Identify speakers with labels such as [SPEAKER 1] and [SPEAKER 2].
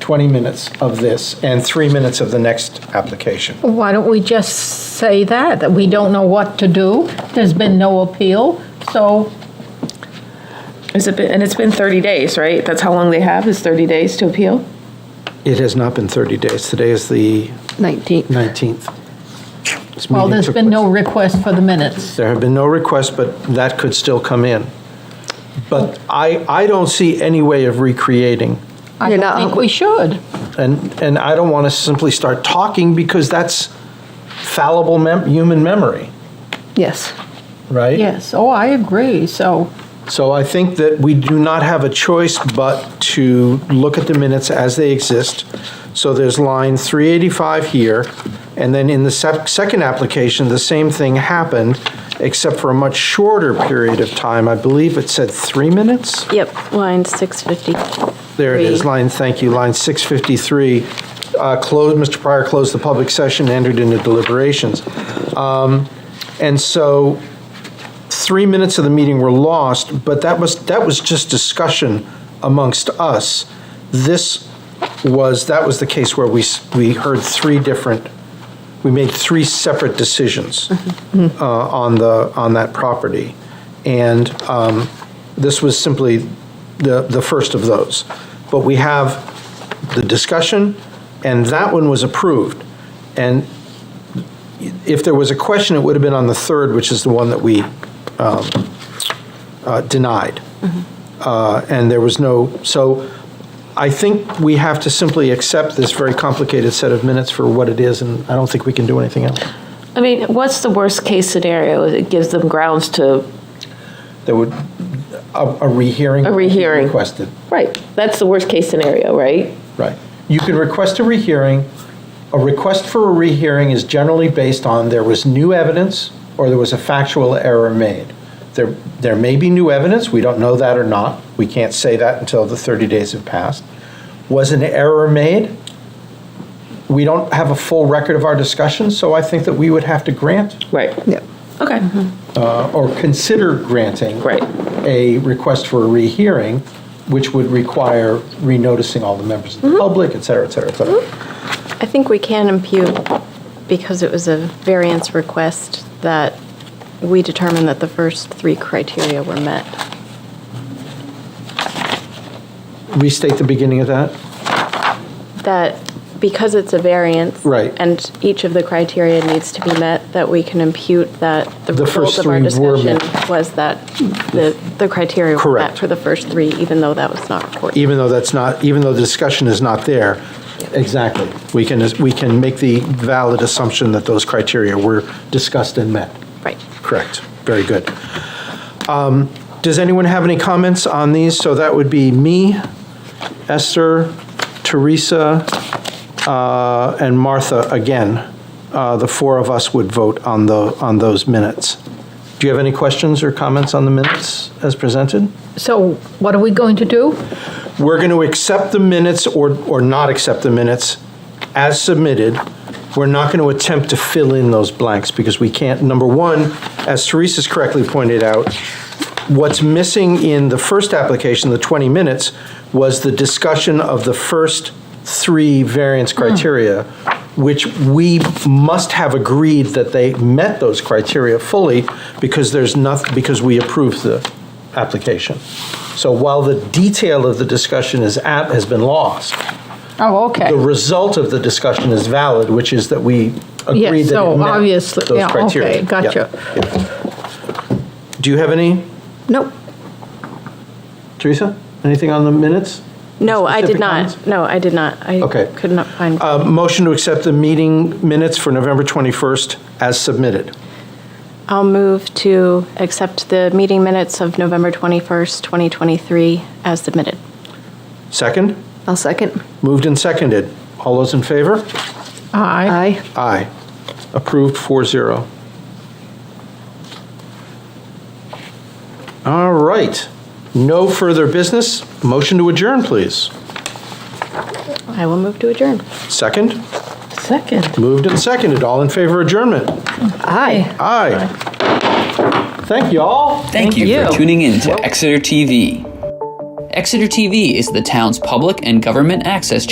[SPEAKER 1] 20 minutes of this and three minutes of the next application.
[SPEAKER 2] Why don't we just say that, that we don't know what to do? There's been no appeal, so
[SPEAKER 3] Is it, been- and it's been 30 days, right? That's how long they have, is 30 days to appeal?
[SPEAKER 1] It has not been 30 days. Today is the
[SPEAKER 4] 19th.
[SPEAKER 1] 19th. This
[SPEAKER 2] Well,
[SPEAKER 1] meeting
[SPEAKER 2] there's
[SPEAKER 1] took
[SPEAKER 2] been
[SPEAKER 1] place-
[SPEAKER 2] no request for the minutes.
[SPEAKER 1] There have been no requests, but that could still come in. But I, I don't see any way of recreating,
[SPEAKER 2] I
[SPEAKER 4] You're
[SPEAKER 2] don't
[SPEAKER 4] not-
[SPEAKER 2] think we should.
[SPEAKER 1] and, and I don't want to simply start talking because that's fallible mem- human memory,
[SPEAKER 4] Yes.
[SPEAKER 1] right?
[SPEAKER 2] Yes, oh, I agree, so,
[SPEAKER 1] So I think that we do not have a choice but to look at the minutes as they exist. So there's line 385 here, and then in the sec- second application, the same thing happened, except for a much shorter period of time. I believe it said three minutes?
[SPEAKER 5] Yep, line 650.
[SPEAKER 1] There it is,
[SPEAKER 5] Three.
[SPEAKER 1] line, thank you, line 653. uh, Closed, Mr. Pryor closed the public session, entered into deliberations. Um, And so, three minutes of the meeting were lost, but that was, that was just discussion amongst us. This was, that was the case where we, s- we heard three different, we made three separate decisions uh, on the, on that property. And um, this was simply the, the first of those. But we have the discussion, and that one was approved. And if there was a question, it would have been on the third, which is the one that we um, uh, denied.
[SPEAKER 3] Mm-hmm.
[SPEAKER 1] Uh, And there was no, so I think we have to simply accept this very complicated set of minutes for what it is, and I don't think we can do anything else.
[SPEAKER 3] I mean, what's the worst-case scenario? It gives them grounds to,
[SPEAKER 1] There would, a a rehearing.
[SPEAKER 3] A rehearing.
[SPEAKER 1] Requested,
[SPEAKER 3] right, that's the worst-case scenario, right?
[SPEAKER 1] right. You can request a rehearing. A request for a rehearing is generally based on there was new evidence or there was a factual error made. There, there may be new evidence, we don't know that or not. We can't say that until the 30 days have passed. Was an error made? We don't have a full record of our discussion, so I think that we would have to grant
[SPEAKER 3] Right,
[SPEAKER 4] Yep.
[SPEAKER 3] okay,
[SPEAKER 1] uh, or consider granting.
[SPEAKER 3] Right.
[SPEAKER 1] A request for a rehearing, which would require renoticing all the members
[SPEAKER 3] Mm-hmm.
[SPEAKER 1] of the public, et cetera, et cetera, et cetera.
[SPEAKER 5] I think we can impute, because it was a variance request, that we determined that the first three criteria were met.
[SPEAKER 1] Restate the beginning of that?
[SPEAKER 5] That because it's a variance.
[SPEAKER 1] Right.
[SPEAKER 5] And each of the criteria needs to be met, that we can impute that the
[SPEAKER 1] The
[SPEAKER 5] result
[SPEAKER 1] first
[SPEAKER 5] of our
[SPEAKER 1] three were
[SPEAKER 5] discussion
[SPEAKER 1] met.
[SPEAKER 5] was that the, the criteria were
[SPEAKER 1] Correct.
[SPEAKER 5] met for the first three, even though that was not recorded.
[SPEAKER 1] Even though that's not, even though the discussion is not there. Exactly. We can, we can make the valid assumption that those criteria were discussed and met.
[SPEAKER 5] Right.
[SPEAKER 1] Correct. Very good. Um, Does anyone have any comments on these? So that would be me, Esther, Teresa, uh, and Martha again. Uh, The four of us would vote on the, on those minutes. Do you have any questions or comments on the minutes as presented?
[SPEAKER 2] so what are we going to do?
[SPEAKER 1] We're going to accept the minutes or, or not accept the minutes as submitted. We're not going to attempt to fill in those blanks because we can't. Number one, as Teresa's correctly pointed out, what's missing in the first application, the 20 minutes, was the discussion of the first three variance
[SPEAKER 2] Hmm.
[SPEAKER 1] criteria, which we must have agreed that they met those criteria fully because there's nothing, because we approved the application. So while the detail of the discussion is at, has been lost,
[SPEAKER 2] Oh,
[SPEAKER 1] the
[SPEAKER 2] okay.
[SPEAKER 1] result of the discussion is valid, which is that we agreed
[SPEAKER 2] Yes,
[SPEAKER 1] that it
[SPEAKER 2] so
[SPEAKER 1] met
[SPEAKER 2] obviously-
[SPEAKER 1] those
[SPEAKER 2] yeah, okay,
[SPEAKER 1] criteria. Yeah,
[SPEAKER 2] gotcha.
[SPEAKER 1] yeah. Do you have any,
[SPEAKER 4] Nope.
[SPEAKER 1] Teresa? Anything on the minutes?
[SPEAKER 5] No, I did
[SPEAKER 1] Specific comments?
[SPEAKER 5] not. No, I did not. I
[SPEAKER 1] Okay.
[SPEAKER 5] could not find.
[SPEAKER 1] Uh, Motion to accept the meeting minutes for November 21st as submitted.
[SPEAKER 5] I'll move to accept the meeting minutes of November 21st, 2023 as submitted.
[SPEAKER 1] Second?
[SPEAKER 4] I'll second.
[SPEAKER 1] Moved and seconded. All those in favor?
[SPEAKER 2] Aye.
[SPEAKER 4] Aye.
[SPEAKER 1] Aye. Approved 4-0. All right. No further business. Motion to adjourn, please.
[SPEAKER 5] I will move to adjourn.
[SPEAKER 1] Second.
[SPEAKER 2] Second.
[SPEAKER 1] Moved and seconded. All in favor of adjournment?
[SPEAKER 4] Aye.
[SPEAKER 1] Aye. Thank you all.
[SPEAKER 6] Thank you, for tuning in to Exeter TV. Exeter TV is the town's public and government access